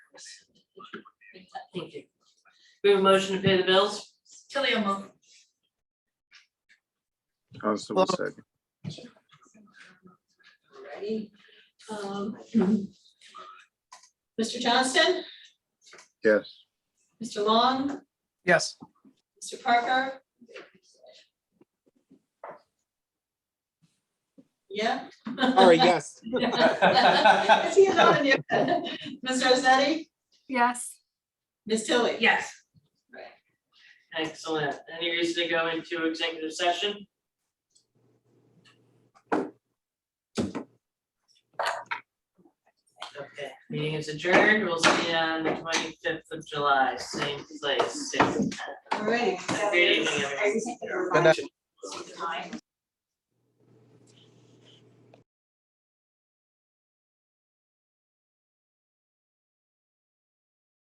six. Thank you. We have a motion to pay the bills? Tilly will move. Constable second. Alrighty. Um, Mr. Johnston, Yes. Mr. Long, Yes. Mr. Parker? Yeah? Or yes. Is he on you? Ms. Rosetti, Yes. Ms. Tilly? Yes. Excellent. Any reason to go into executive session? Okay, meeting is adjourned. We'll see you on the twenty-fifth of July, same place, same time. Alrighty. Good evening, everyone. Good night. Time.